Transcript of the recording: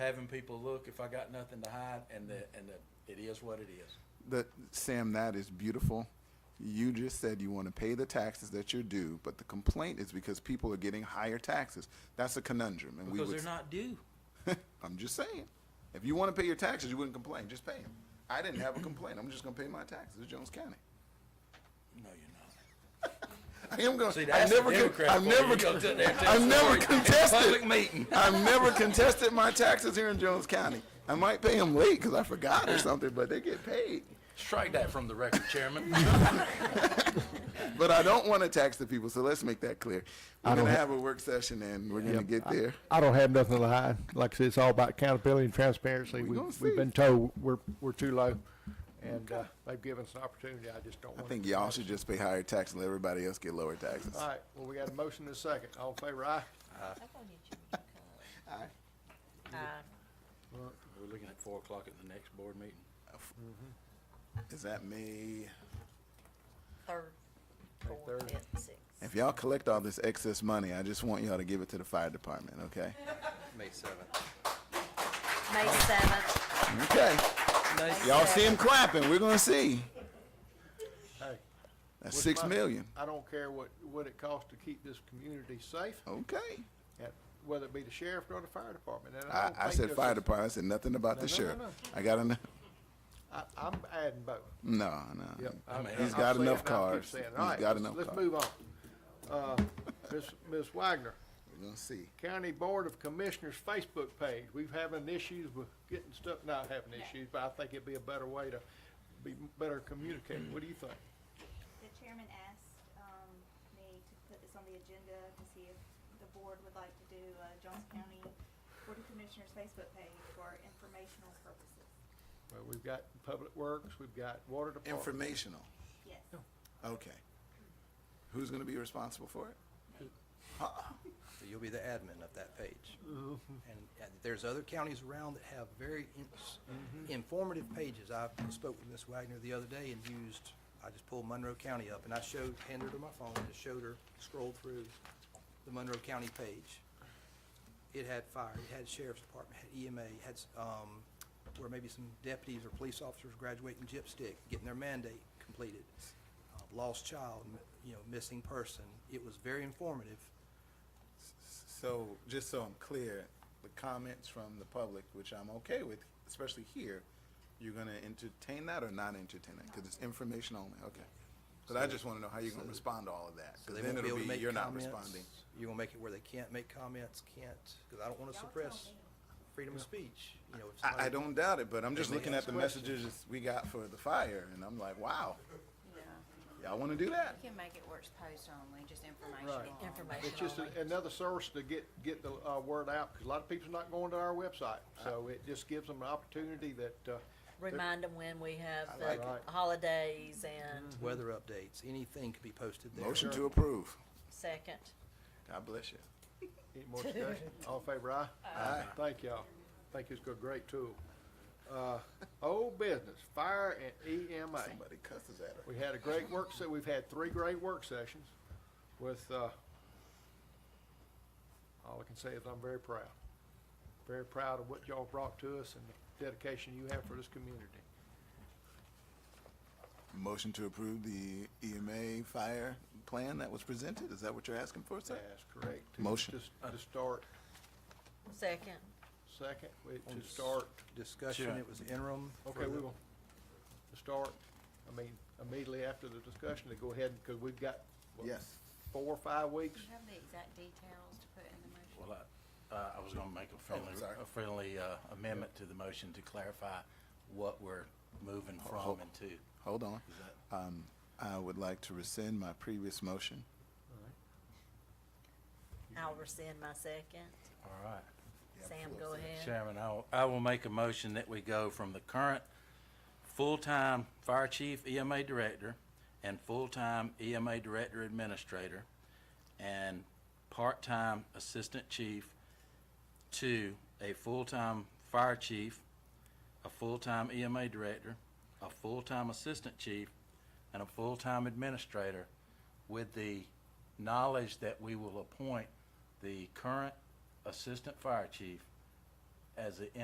having people look if I got nothing to hide and the, and the, it is what it is. That, Sam, that is beautiful. You just said you want to pay the taxes that you're due, but the complaint is because people are getting higher taxes. That's a conundrum, and we Because would. they're not due. I'm just saying, if you want to pay your taxes, you wouldn't complain. Just pay them. I didn't have a complaint. I'm just gonna pay my taxes. It's Jones County. No, you're not. I am gonna. See, I that's the never. con- Democrat. I for you. never. You go con- sit there and tell I the never story in contested. Public meeting. I've never contested my taxes here in Jones County. I might pay them late because I forgot or something, but they get paid. Strike that from the record, Chairman. But I don't want to tax the people, so let's make that clear. We're I don't gonna ha- have a work session and we're gonna Yep. get there. I don't have nothing to hide. Like I said, it's all about accountability and transparency. We We, gonna see. we've been told we're, we're too low, and uh, they've given us an opportunity. I just don't I want. think y'all should just pay higher tax and let everybody else get lower taxes. All right, well, we got a motion and a second. All in favor, aye? I'm gonna get you a cup. Uh, We're looking at four o'clock at the next board meeting. Is that me? Third, fourth, third. fifth, sixth. If y'all collect all this excess money, I just want y'all to give it to the fire department, okay? May seventh. May seventh. Okay. Y'all see them clapping. We're gonna see. Hey, That's with six my- million. I don't care what, what it costs to keep this community safe, Okay. at- whether it be the sheriff or the fire department. And I, don't I think said there's fire a- department. I said nothing about No, the no, no, sheriff. no. I got enough. I, I'm adding both. No, no. Yep. I'm I'm- adding. He's I'm got saying enough it, and I keep cars. saying He's it. All right, got let's- enough Let's cars. move on. Uh, Ms. Ms. Wagner, We're gonna see. County Board of Commissioners Facebook page. We've having issues with getting stuff, not having issues, but I think it'd be a better way to be better communicating. What do you think? The chairman asked um, me to put this on the agenda to see if the board would like to do uh, Johnson County Board of Commissioners Facebook page for informational purposes. Well, we've got Public Works, we've got Water Department. Informational. Yes. Okay. Who's gonna be responsible for it? Uh-uh. So you'll be the admin of that page. And uh, there's other counties around that have very in- informative pages. I spoke with Ms. Wagner the other day and used, I just pulled Monroe County up and I showed, handed her my phone and showed her, scrolled through the Monroe County page. It had fire, it had sheriff's department, had EMA, had, um, where maybe some deputies or police officers graduating gyp stick, getting their mandate completed. uh, Lost child, m- you know, missing person. It was very informative. So, just so I'm clear, the comments from the public, which I'm okay with, especially here, you're gonna entertain that or not entertain it? Cause it's information only, okay. But I just wanna know how you're gonna respond to all of that, So cause they then won't be it'll able to be, make you're not comments. responding. You're gonna make it where they can't make comments, can't, because I don't want to Y'all tell suppress me. freedom of speech, you know. if I, I somebody- don't doubt it, but I'm just They may looking at ask the questions. messages we got for the fire and I'm like, wow, Yeah, y'all wanna do that? You can make it where it's post only, just Right. informational. It's information just a- only. another source to get, get the uh, word out, because a lot of people's not going to our website. So it just gives them an opportunity that, uh, Remind them when we have like the it. holidays and Weather updates, anything could be posted there. Motion to approve. second. God bless you. any more discussion? All in favor, aye? Aye. Thank y'all. Think it's a great tool. Uh, Old business, fire and E EMA. Somebody cusses at her. We had a great work, se- we've had three great work sessions with, uh, all I can say is I'm very proud. Very proud of what y'all brought to us and the dedication you have for this community. Motion to approve the EMA fire plan that was presented? Is that what you're asking for, sir? That's correct. To- Motion. to- To start, Second, second, wait, On to s- start, Discussion, Sure. it was interim. for okay, the- we will, to start, I mean, immediately after the discussion, to go ahead, because we've got, what, Yes. four or five weeks? Do you have the exact details to put in the motion? Well, I, uh, I was gonna make a friendly, sorry. a friendly, uh, amendment to the motion to clarify what we're moving from and to. Hold on. Is that- Um, I would like to rescind my previous motion. I'll rescind my second. All right. Sam, go ahead. Chairman, I will, I will make a motion that we go from the current full-time fire chief EMA director and full-time EMA director administrator and part-time assistant chief to a full-time fire chief, a full-time EMA director, a full-time assistant chief, and a full-time administrator with the knowledge that we will appoint the current assistant fire chief as the